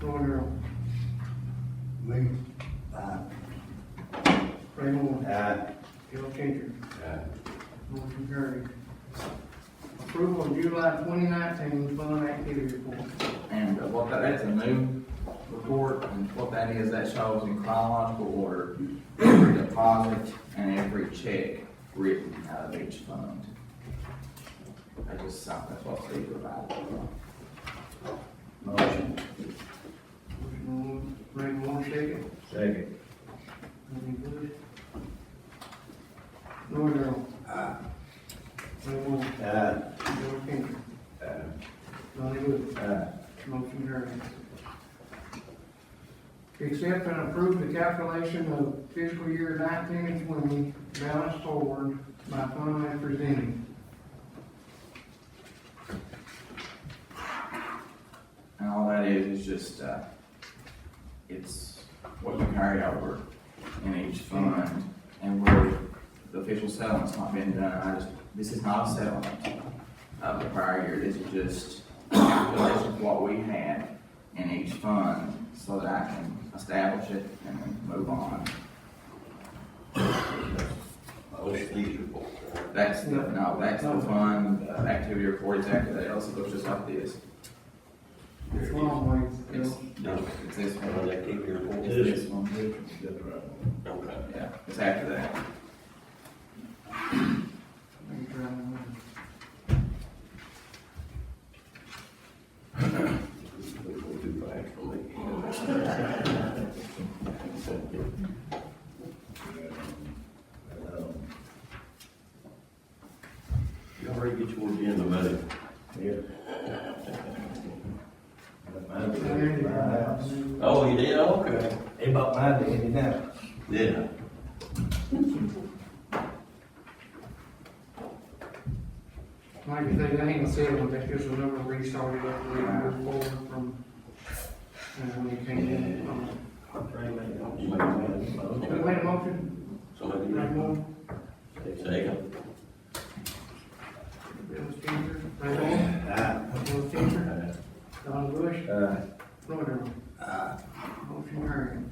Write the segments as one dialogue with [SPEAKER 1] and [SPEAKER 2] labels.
[SPEAKER 1] Thornhill. Lee. Aye. Ray Moore.
[SPEAKER 2] Aye.
[SPEAKER 1] Al Changer.
[SPEAKER 2] Aye.
[SPEAKER 1] Motion carried. Approval of July twenty nineteen fund activity report.
[SPEAKER 3] And uh, what that, that's a new report, and what that is, that shows in chronological order every deposit and every check written out of each fund. I just, thought that's what Steve provided.
[SPEAKER 2] Motion.
[SPEAKER 1] Motion on Ray Moore, second.
[SPEAKER 2] Second.
[SPEAKER 1] Any good? Thornhill.
[SPEAKER 2] Aye.
[SPEAKER 1] Ray Moore.
[SPEAKER 2] Aye.
[SPEAKER 1] Al Changer.
[SPEAKER 2] Aye.
[SPEAKER 1] Donnie Bush.
[SPEAKER 2] Aye.
[SPEAKER 1] Motion carried. Accept and approve the calculation of fiscal year nineteen and twenty balance toward my fund as presented.
[SPEAKER 3] And all that is, is just, uh, it's what you carry over in each fund and where the official settlement's not been done. I just, this is not a settlement of the prior year. This is just a calculation of what we had in each fund so that I can establish it and then move on.
[SPEAKER 2] Motion. Please report.
[SPEAKER 3] That's the, no, that's the fund uh, activity report exactly. That also looks just like this.
[SPEAKER 1] It's a long ways.
[SPEAKER 3] It's,
[SPEAKER 1] Bill.
[SPEAKER 3] no, it's this
[SPEAKER 2] Fund
[SPEAKER 3] one.
[SPEAKER 2] activity report.
[SPEAKER 3] It's this one.
[SPEAKER 2] Okay.
[SPEAKER 3] Yeah, it's after that.
[SPEAKER 1] Let me try and remember.
[SPEAKER 2] Too fast for me. You already get your agenda, buddy. Oh, you did, okay.
[SPEAKER 4] They bought my daddy now.
[SPEAKER 2] Yeah.
[SPEAKER 1] Like you say, that ain't a settlement, that's just a number restarted up, we moved forward from, uh, when you came in. Um,
[SPEAKER 2] You made
[SPEAKER 1] We made a motion,
[SPEAKER 2] Somebody
[SPEAKER 1] Ray Moore,
[SPEAKER 2] Second.
[SPEAKER 1] Bill Spencer, Ray Moore, Bill Spencer, Donnie Bush, Thornhill. Motion carried.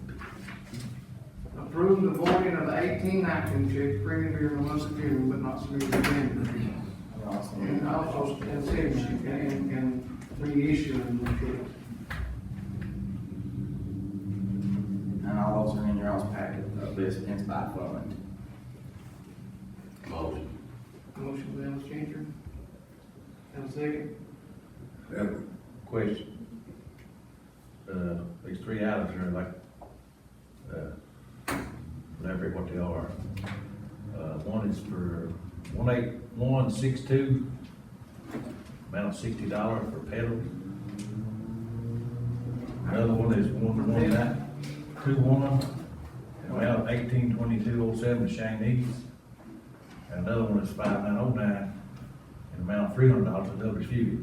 [SPEAKER 1] Approve the voiding of the eighteen nineteen check printed during the month of June but not submitted in January. And also, and signature, and, and reissuing the check.
[SPEAKER 3] And all those are in your all's packet of this pins by fund.
[SPEAKER 2] Motion.
[SPEAKER 1] Motion by Al Changer. Have a second?
[SPEAKER 5] Question. Uh, these three items are like, uh, whatever what they are. Uh, one is for one eight one six two, amount of sixty dollar for pedals. Another one is one one nine, two one, amount of eighteen twenty-two oh seven Chinese. And another one is five nine oh nine, and amount of three hundred dollars to W C.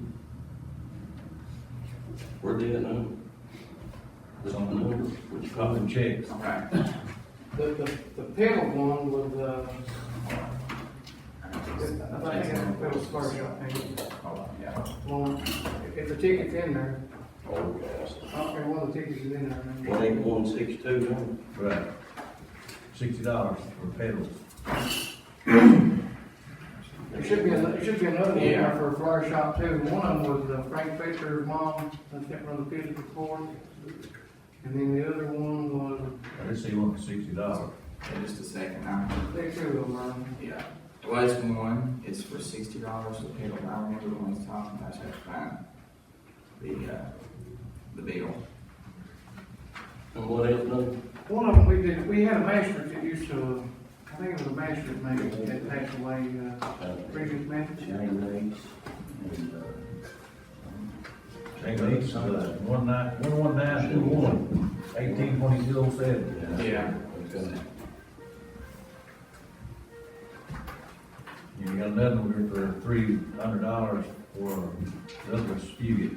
[SPEAKER 2] Where did it now? This
[SPEAKER 5] on the
[SPEAKER 2] number,
[SPEAKER 5] board,
[SPEAKER 2] which
[SPEAKER 5] which
[SPEAKER 2] you
[SPEAKER 5] called
[SPEAKER 2] call
[SPEAKER 5] them
[SPEAKER 2] it?
[SPEAKER 5] checks.
[SPEAKER 3] Okay.
[SPEAKER 1] The, the, the pedal one was, uh, I think it was Spark, I think.
[SPEAKER 3] Hold on, yeah.
[SPEAKER 1] Well, if the ticket's in there,
[SPEAKER 2] Okay.
[SPEAKER 1] I don't care what the ticket is in there. I mean-
[SPEAKER 2] One eight one six two, huh?
[SPEAKER 5] Right. Sixty dollars for pedals.
[SPEAKER 1] There should be, a- there should be another one there
[SPEAKER 3] Yeah.
[SPEAKER 1] for a flower shop too. One of them was uh, Frank Fisher's mom, I think from the physical court. And then the other one was,
[SPEAKER 5] I did see one for sixty dollars.
[SPEAKER 3] In just a second, I,
[SPEAKER 1] they two of them.
[SPEAKER 3] yeah. Well, it's one, it's for sixty dollars to pay, but I remember when we was talking, I should find the, uh, the bill.
[SPEAKER 2] And what else, no?
[SPEAKER 1] One of them, we did, we had a master that used to, I think it was a master maybe, that passed away, uh, previous master.
[SPEAKER 2] Chinese and, uh,
[SPEAKER 5] Change it to one nine, one one nine two one, eighteen twenty-two oh seven.
[SPEAKER 3] Yeah.
[SPEAKER 2] Okay.
[SPEAKER 5] You got another one for three hundred dollars for the other spigot.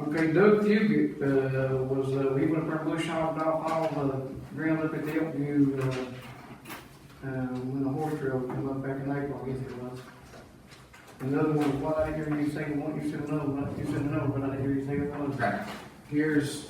[SPEAKER 1] Okay, Doug Fugit, uh, was, uh, we went from Bush Hall, Dolph Hall, uh, ground up at the Elkview, uh, uh, when the horse trail come up back in April, I guess it was. Another one, what I hear you say, one, you said another one, you said another one, I didn't hear you say another one.
[SPEAKER 3] Okay, here's